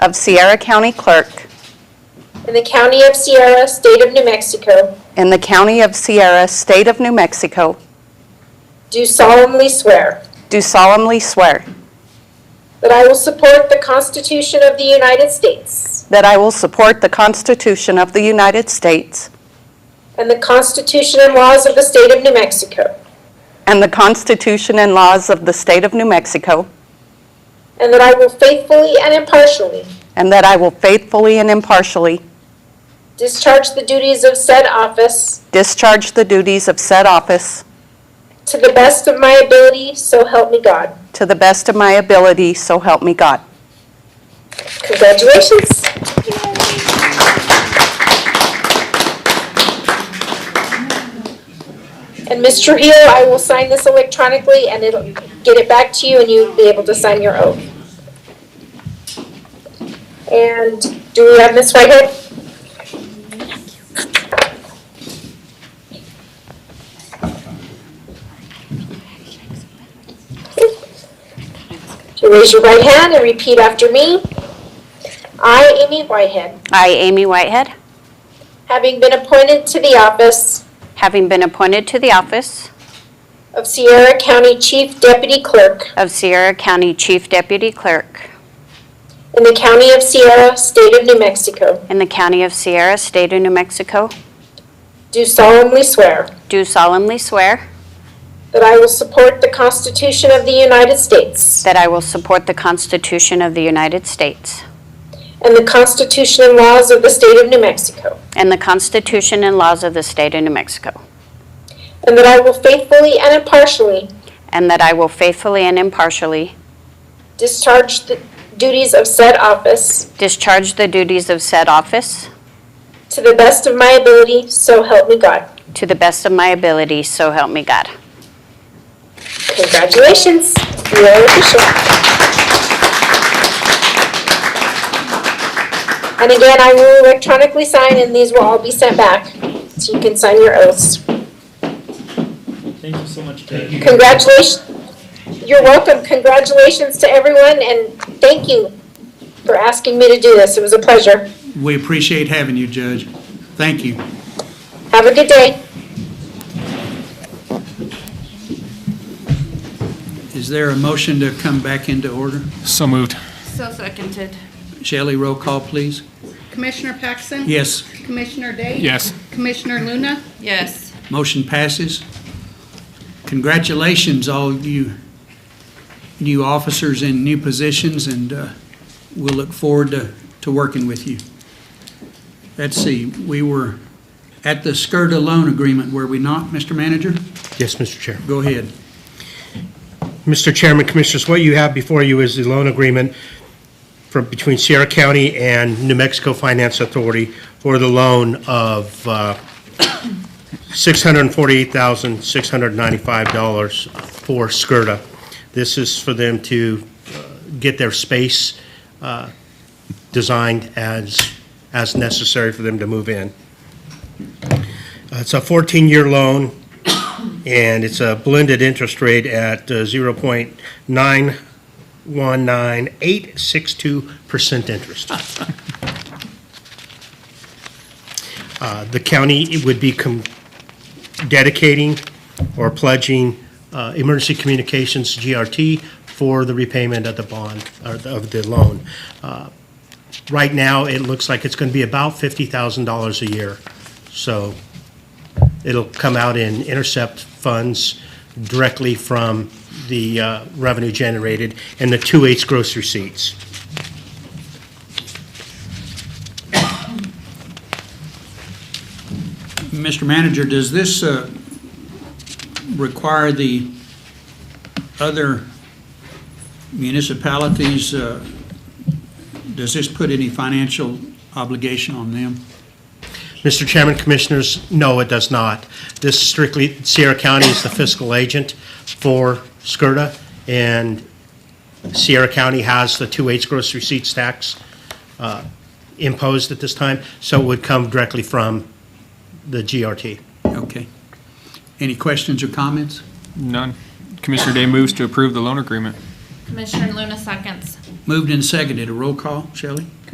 of Sierra County Clerk in the County of Sierra, State of New Mexico, in the County of Sierra, State of New Mexico, do solemnly swear do solemnly swear that I will support the Constitution of the United States that I will support the Constitution of the United States and the Constitution and laws of the State of New Mexico, and the Constitution and laws of the State of New Mexico, and that I will faithfully and impartially and that I will faithfully and impartially discharge the duties of said office discharge the duties of said office to the best of my ability, so help me God. to the best of my ability, so help me God. Congratulations. And Ms. Trujillo, I will sign this electronically and it'll get it back to you and you'll be able to sign your oath. And do we have Ms. Whitehead? So Raise your right hand and repeat after me. I, Amy Whitehead, I, Amy Whitehead, having been appointed to the office having been appointed to the office of Sierra County Chief Deputy Clerk of Sierra County Chief Deputy Clerk in the County of Sierra, State of New Mexico, in the County of Sierra, State of New Mexico, do solemnly swear do solemnly swear that I will support the Constitution of the United States that I will support the Constitution of the United States and the Constitution and laws of the State of New Mexico, and the Constitution and laws of the State of New Mexico, and that I will faithfully and impartially and that I will faithfully and impartially discharge the duties of said office discharge the duties of said office to the best of my ability, so help me God. to the best of my ability, so help me God. Congratulations, you are official. And again, I will electronically sign and these will all be sent back, so you can sign your oaths. Thank you so much, Judge. Congratulations, you're welcome, congratulations to everyone and thank you for asking me to do this, it was a pleasure. We appreciate having you, Judge. Thank you. Have a good day. Is there a motion to come back into order? So moved. So seconded. Shelley, roll call, please. Commissioner Paxson? Yes, Commissioner Day? Yes. Commissioner Luna? Yes. motion passes. Congratulations, all you new officers in new positions, and uh, we'll look forward to, to working with you. Let's see, we were at the SCRTA loan agreement, were we not, Mr. Manager? Yes, Mr. Chair. Go ahead. Mr. Chairman, Commissioners, what you have before you is the loan agreement from, between Sierra County and New Mexico Finance Authority for the loan of uh, $648,695 for Skirta. This is for them to uh, get their space uh, designed as, as necessary for them to move in. Uh, It's a 14-year loan and it's a blended interest rate at uh, 0.919862% interest. Uh, The county would be com- dedicating or pledging uh, Emergency Communications, GRT, for the repayment of the bond, or the- of the loan. Uh, Right now, it looks like it's going to be about $50,000 a year, so it'll come out in intercept funds directly from the uh, revenue generated and the 2/8 gross receipts. Mr. Manager, does this uh, require the other municipalities, uh, does this put any financial obligation on them? Mr. Chairman, Commissioners, no, it does not. This strictly, Sierra County is the fiscal agent for SCRTA, and Sierra County has the 2/8 gross receipts tax uh, imposed at this time, so it would come directly from the GRT. Okay. Any questions or comments? None. Commissioner Day moves to approve the loan agreement. Commissioner Luna seconds. Moved and seconded, a roll call, Shelley?